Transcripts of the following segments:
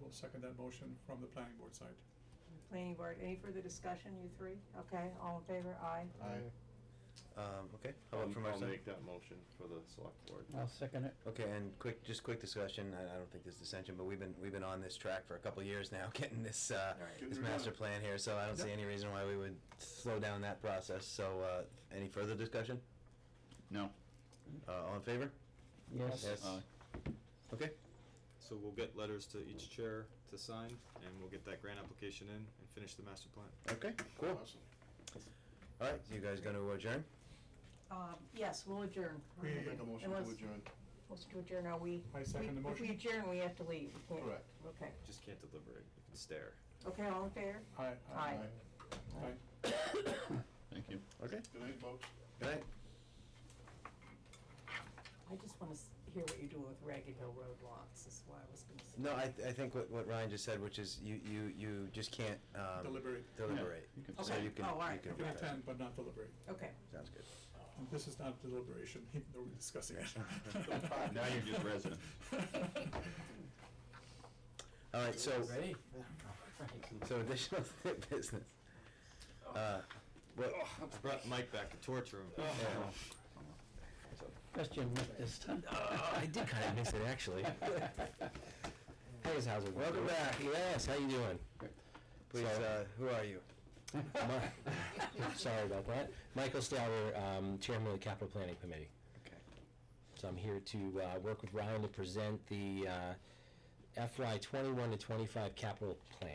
We'll second that motion from the planning board side. Planning board, any further discussion, you three? Okay, all in favor, aye. Aye. Um, okay, how I'll about from our I'll side? make that motion for the select board. I'll second it. Okay, and quick, just quick discussion, I, I don't think there's dissension, but we've been, we've been on this track for a couple of years now, getting this, uh, Right. this Getting it master done. plan here, so I don't see Yep. any reason why we would slow down that process, so, uh, any further discussion? No. Uh, all in favor? Yes. Aye. Okay, So we'll get letters to each chair to sign, and we'll get that grant application in and finish the master plan. okay, cool. Awesome. All right, you guys gonna adjourn? Um, yes, we'll adjourn. We- I'll make a motion to Unless- adjourn. Motion to adjourn, are we? I second the we- If motion. we adjourn, we have to leave. We can't- Correct. Okay, Just can't deliberate, you can stare. okay, all in favor? Aye. Aye. Aye. Thank you. Okay, Good night, folks. good night. I just wanna s- hear what you're doing with Ragged Hill Road lots, is why I was gonna say. No, I, th- I think what, what Ryan just said, which is you, you, you just can't, um. Deliberate. Deliberate. Yeah, you can- So Okay. you can, Oh, all you right. You can. can retire. attend, but not deliberate. Okay. Sounds good. And This is not deliberation, even though we're discussing it. Now you're just resident. All right, so. Ready? So additional business. Uh, what, I brought Mike back to torture him. Yeah. Best you missed this time. Oh, Uh, I did kinda miss it, actually. Hey, how's it welcome back, yes, how you doing? Please, So- uh, who are you? Mi- Sorry about that. Michael Stauber, um, Chairman of the Capital Planning Committee. Okay. So I'm here to uh, work with Ryan to present the uh, FY 21 to 25 capital plan.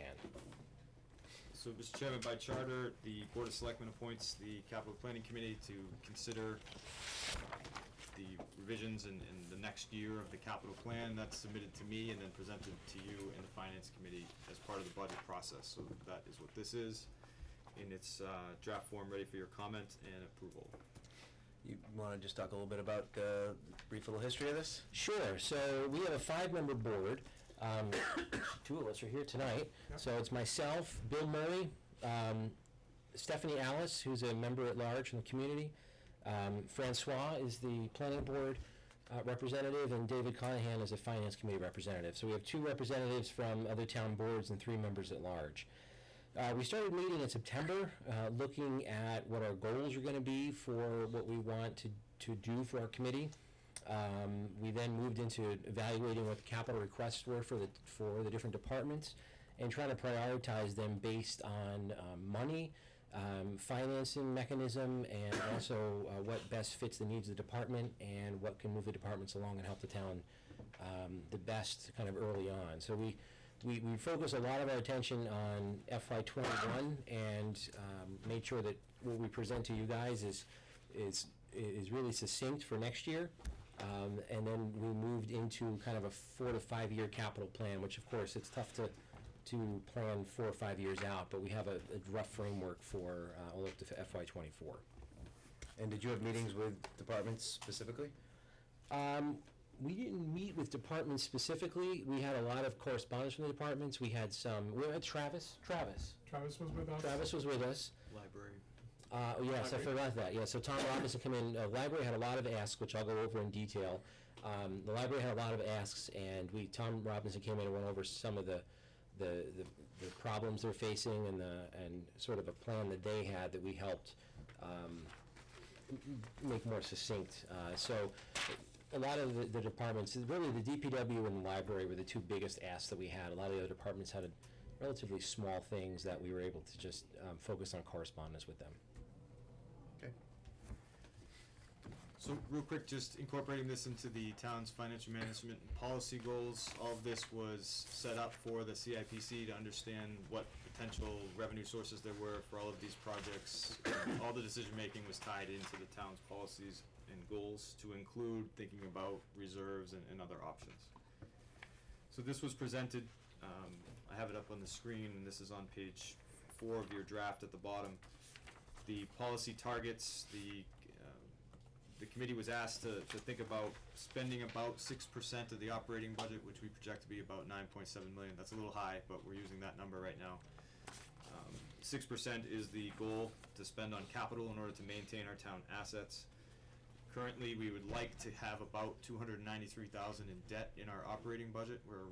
So, Mr. Chairman, by charter, the Board of Selectmen appoints the Capital Planning Committee to consider uh, the revisions in, in the next year of the capital plan that's submitted to me and then presented to you and the Finance Committee as part of the budget process. So that is what this is, in its uh, draft form, ready for your comment and approval. You wanna just talk a little bit about, uh, brief little history of this? Sure. So we have a five-member board. Um, two of us are here tonight. So it's myself, Bill Murray, um, Stephanie Alice, who's a member at large in the community. Um, Francois is the planning board uh, representative, and David Conahan is a finance committee representative. So we have two representatives from other town boards and three members at large. Uh, we started meeting in September, uh, looking at what our goals are going to be for what we want to, to do for our committee. Um, we then moved into evaluating what the capital requests were for the for the different departments, and trying to prioritize them based on um, money, um, financing mechanism, and also uh, what best fits the needs of the department and what can move the departments along and help the town um, the best kind of early on. So we. We, we focus a lot of our attention on FY21 and um, made sure that what we present to you guys is is is really succinct for next year. Um, and then we moved into kind of a four to five year capital plan, which of course it's tough to to plan four or five years out, but we have a, a rough framework for uh, all up to FY24. And did you have meetings with departments specifically? Um, we didn't meet with departments specifically. We had a lot of correspondence from the departments. We had some. We had Travis. Travis. Travis was with us. Travis was with us. Library. Uh, oh, yes, I Library. forgot that. Yeah, so Tom Robinson came in. Uh, library had a lot of asks, which I'll go over in detail. Um, the library had a lot of asks, and we Tom Robinson came in and went over some of the the, the, the problems they're facing and the and sort of a plan that they had that we helped um, m- m- make more succinct. Uh, so a lot of the, the departments, really the DPW and the library were the two biggest asks that we had. A lot of the other departments had a, relatively small things that we were able to just um, focus on correspondence with them. Okay. So real quick, just incorporating this into the town's financial management and policy goals, all of this was set up for the CIPC to understand what potential revenue sources there were for all of these projects. All the decision-making was tied into the town's policies and goals to include thinking about reserves and, and other options. So this was presented, um, I have it up on the screen, and this is on page four of your draft at the bottom. The policy targets, the, um, the committee was asked to, to think about spending about six percent of the operating budget, which we project to be about nine point seven million. That's a little high, but we're using that number right now. Um, Six percent is the goal to spend on capital in order to maintain our town assets. Currently, we would like to have about two hundred ninety-three thousand in debt in our operating budget. We're